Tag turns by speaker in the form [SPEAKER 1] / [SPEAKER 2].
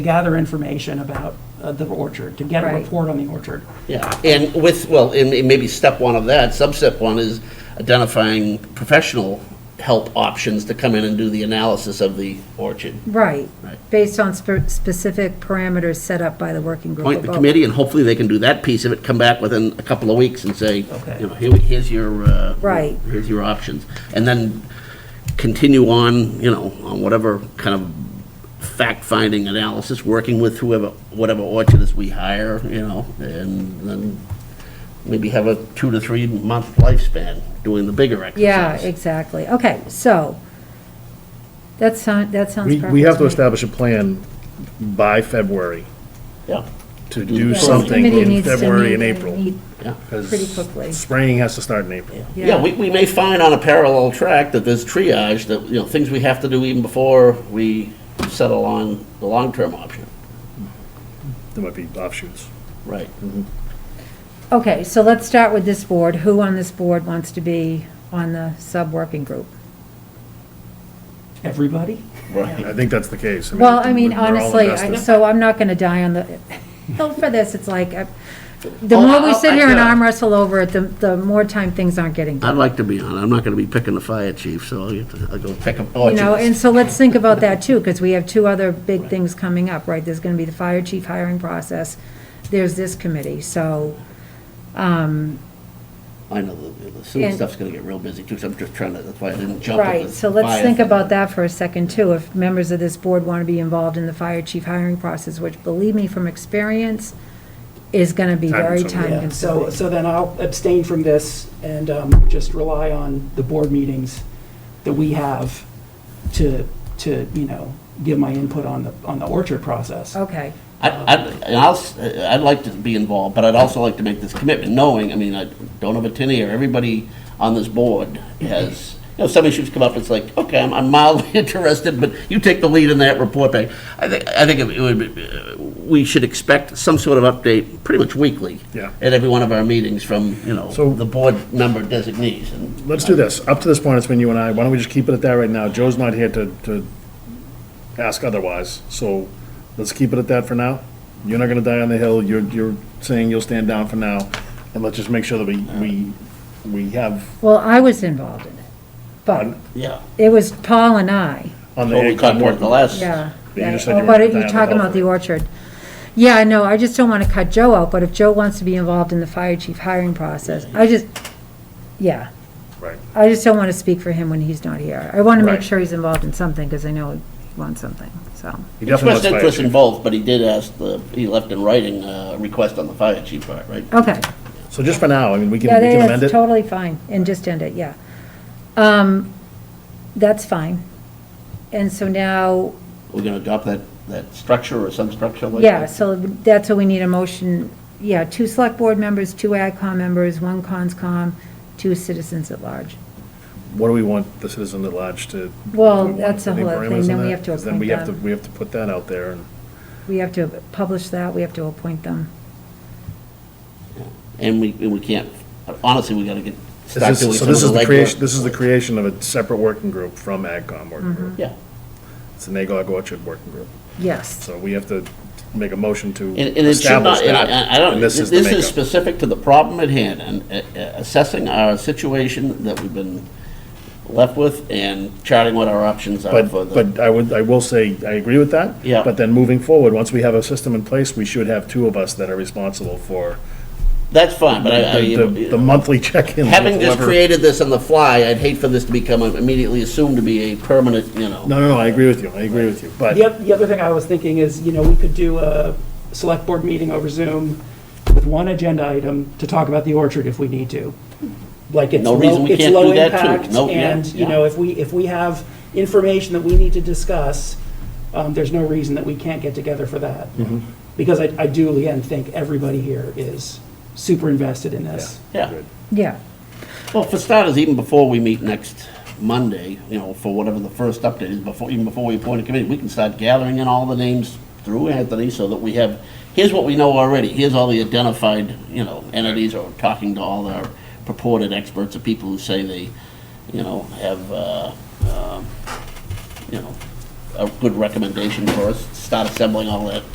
[SPEAKER 1] gather information about uh, the orchard, to get a
[SPEAKER 2] Right.
[SPEAKER 1] report on the orchard.
[SPEAKER 3] Yeah, and with, well, and and maybe step one of that, sub-step one is identifying professional help options to come in and do the analysis of the orchard.
[SPEAKER 2] Right,
[SPEAKER 3] Right.
[SPEAKER 2] based on spe- specific parameters set up by the working group.
[SPEAKER 3] Appoint the
[SPEAKER 2] above.
[SPEAKER 3] committee, and hopefully they can do that piece of it, come back within a couple of weeks and say,
[SPEAKER 1] Okay.
[SPEAKER 3] you know, here, here's your, uh.
[SPEAKER 2] Right.
[SPEAKER 3] Here's your options, and then continue on, you know, on whatever kind of fact-finding analysis, working with whoever, whatever orchardist we hire, you know, and then maybe have a two to three-month lifespan doing the bigger exercise.
[SPEAKER 2] Yeah, exactly. Okay, so, that sound, that sounds
[SPEAKER 4] We,
[SPEAKER 2] perfect.
[SPEAKER 4] we have to
[SPEAKER 2] me.
[SPEAKER 4] establish a plan by February
[SPEAKER 3] Yeah,
[SPEAKER 4] to do
[SPEAKER 3] Yeah.
[SPEAKER 2] Yes,
[SPEAKER 4] something
[SPEAKER 2] committee
[SPEAKER 4] in
[SPEAKER 2] needs to
[SPEAKER 4] February
[SPEAKER 2] meet
[SPEAKER 4] and April.
[SPEAKER 2] meet
[SPEAKER 3] yeah.
[SPEAKER 2] Pretty quickly.
[SPEAKER 4] Spraying has to start in April.
[SPEAKER 3] Yeah, we, we may find on a parallel track that there's triage, that, you know, things we have to do even before we settle on the long-term option.
[SPEAKER 4] There might be offshoots.
[SPEAKER 3] Right.
[SPEAKER 2] Okay, so let's start with this board. Who on this board wants to be on the sub-working group?
[SPEAKER 1] Everybody?
[SPEAKER 4] I think that's the case.
[SPEAKER 2] Well, I mean,
[SPEAKER 4] we're all
[SPEAKER 2] honestly, I-
[SPEAKER 4] invested.
[SPEAKER 2] so I'm not gonna die on the, hell for this, it's like, uh, the more we
[SPEAKER 3] Oh, I-
[SPEAKER 2] sit here and
[SPEAKER 3] yeah.
[SPEAKER 2] arm wrestle over it, the, the more time things aren't getting done.
[SPEAKER 3] I'd like to be on, it. I'm not gonna be picking the fire chief, so I'll get to, I'll go pick him.
[SPEAKER 2] You know, and so let's think about that too, because we have two other big things coming up, right? There's gonna be the fire chief hiring process, there's this committee, so,
[SPEAKER 3] I know, the, the sewer
[SPEAKER 2] and-
[SPEAKER 3] stuff's gonna get real busy too, so I'm just trying to, that's why I didn't jump at
[SPEAKER 2] right,
[SPEAKER 3] the
[SPEAKER 2] so let's
[SPEAKER 3] fire
[SPEAKER 2] think
[SPEAKER 3] thing.
[SPEAKER 2] about that for a second too. If members of this board want to be involved in the fire chief hiring process, which believe me from experience, is gonna be
[SPEAKER 4] Time
[SPEAKER 2] very
[SPEAKER 4] consuming.
[SPEAKER 2] time
[SPEAKER 1] Yeah, so,
[SPEAKER 2] consuming.
[SPEAKER 1] so then I'll abstain from this and um, just rely on the board meetings that we have to, to, you know, give my input on the, on the orchard process.
[SPEAKER 2] Okay,
[SPEAKER 3] I, I, and I'll, s- I'd like to be involved, but I'd also like to make this commitment, knowing, I mean, I don't have a tin ear, everybody on this board has, you know, some issues come up, it's like, okay, I'm- I'm mildly interested, but you take the lead in that report back. I think, I think it would, be- uh, we should expect some sort of update, pretty much weekly.
[SPEAKER 4] Yeah.
[SPEAKER 3] At every one of our meetings from, you know,
[SPEAKER 4] So-
[SPEAKER 3] the board member designees, and
[SPEAKER 4] Let's do this. Up to this point, it's been you and I. Why don't we just keep it at that right now? Joe's not here to, to ask otherwise, so let's keep it at that for now. You're not gonna die on the hill. You're, you're saying you'll stand down for now. And let's just make sure that we, we, we have
[SPEAKER 2] well, I was involved in it, but
[SPEAKER 3] Yeah.
[SPEAKER 2] it was Paul and I.
[SPEAKER 4] on the.
[SPEAKER 3] Well, we
[SPEAKER 4] ACOG
[SPEAKER 3] caught more
[SPEAKER 4] board.
[SPEAKER 3] than the last.
[SPEAKER 2] Yeah.
[SPEAKER 4] Yeah, you
[SPEAKER 2] yeah.
[SPEAKER 4] just said you
[SPEAKER 2] Oh, But
[SPEAKER 4] were down
[SPEAKER 2] you're
[SPEAKER 4] the
[SPEAKER 2] talking about
[SPEAKER 4] golf.
[SPEAKER 2] the orchard. Yeah, I know, I just don't want to cut Joe out, but if Joe wants to be involved in the fire chief hiring process, I just, yeah.
[SPEAKER 4] Right.
[SPEAKER 2] I just don't want to speak for him when he's not here. I want to make
[SPEAKER 4] Right.
[SPEAKER 2] sure he's involved in something, because I know he wants something, so.
[SPEAKER 4] He definitely
[SPEAKER 3] Expressed
[SPEAKER 4] wants fire
[SPEAKER 3] interest
[SPEAKER 4] chief.
[SPEAKER 3] in both, but he did ask the, he left in writing a request on the fire chief part, right?
[SPEAKER 2] Okay,
[SPEAKER 4] So just for now, I mean, we can,
[SPEAKER 2] yeah,
[SPEAKER 4] we can amend
[SPEAKER 2] that's
[SPEAKER 4] it.
[SPEAKER 2] totally fine, and just end it, yeah. Um, that's fine. And so now,
[SPEAKER 3] We're gonna adopt that, that structure or some structure like that?
[SPEAKER 2] Yeah, so that's what we need a motion, yeah, two select board members, two AdCom members, one ConsCom, two citizens at large.
[SPEAKER 4] What do we want the citizen at large to?
[SPEAKER 2] Well,
[SPEAKER 4] do we want
[SPEAKER 2] that's a
[SPEAKER 4] any
[SPEAKER 2] whole other thing.
[SPEAKER 4] parameters
[SPEAKER 2] Then
[SPEAKER 4] in
[SPEAKER 2] we
[SPEAKER 4] that?
[SPEAKER 2] have to
[SPEAKER 4] 'Cause Then we
[SPEAKER 2] appoint
[SPEAKER 4] have to,
[SPEAKER 2] them.
[SPEAKER 4] we have to put that out there and.
[SPEAKER 2] We have to publish that, we have to appoint them.
[SPEAKER 3] And we, and we can't, honestly, we gotta get,
[SPEAKER 4] This
[SPEAKER 3] start
[SPEAKER 4] is-
[SPEAKER 3] doing
[SPEAKER 4] So
[SPEAKER 3] some of
[SPEAKER 4] this
[SPEAKER 3] the
[SPEAKER 4] is the creation, this
[SPEAKER 3] legwork.
[SPEAKER 4] is the creation of a separate working group from AgCom
[SPEAKER 2] Mm-hmm.
[SPEAKER 4] working group.
[SPEAKER 3] Yeah,
[SPEAKER 4] It's the Nagog Orchard working group.
[SPEAKER 2] Yes,
[SPEAKER 4] So we have to make a motion to
[SPEAKER 3] and, and it should
[SPEAKER 4] establish
[SPEAKER 3] not, and
[SPEAKER 4] that.
[SPEAKER 3] I, I don't,
[SPEAKER 4] and
[SPEAKER 3] this
[SPEAKER 4] this is the
[SPEAKER 3] is
[SPEAKER 4] makeup.
[SPEAKER 3] specific to the problem at hand, and uh, uh, assessing our situation that we've been left with and charting what our options are for
[SPEAKER 4] But,
[SPEAKER 3] the.
[SPEAKER 4] but I would, I will say, I agree with that.
[SPEAKER 3] Yeah.
[SPEAKER 4] But then moving forward, once we have a system in place, we should have two of us that are responsible for
[SPEAKER 3] That's fine, but I, I.
[SPEAKER 4] the, the- the monthly check-in. with
[SPEAKER 3] Having just
[SPEAKER 4] whoever-
[SPEAKER 3] created this on the fly, I'd hate for this to become uh, immediately assumed to be a permanent, you know.
[SPEAKER 4] No, no, no, I agree with you, I agree with you, but.
[SPEAKER 1] The oth- the other thing I was thinking is, you know, we could do a select board meeting over Zoom with one agenda item to talk about the orchard if we need to. Like it's
[SPEAKER 3] No reason
[SPEAKER 1] low,
[SPEAKER 3] we
[SPEAKER 1] it's
[SPEAKER 3] can't
[SPEAKER 1] low
[SPEAKER 3] do that, too.
[SPEAKER 1] impact,
[SPEAKER 3] No, yeah,
[SPEAKER 1] and, you
[SPEAKER 3] yeah.
[SPEAKER 1] know, if we, if we have information that we need to discuss, um, there's no reason that we can't get together for that.
[SPEAKER 3] Mm-hmm.
[SPEAKER 1] Because I, I do, again, think everybody here is super invested in this.
[SPEAKER 3] Yeah.
[SPEAKER 2] yeah,
[SPEAKER 3] Well, for starters, even before we meet next Monday, you know, for whatever the first update is, before, even before we appoint a committee, we can start gathering in all the names through Anthony so that we have, here's what we know already, here's all the identified, you know, entities or talking to all our purported experts or people who say they, you know, uh, have, uh, um, you know, a good recommendation for us. start assembling all that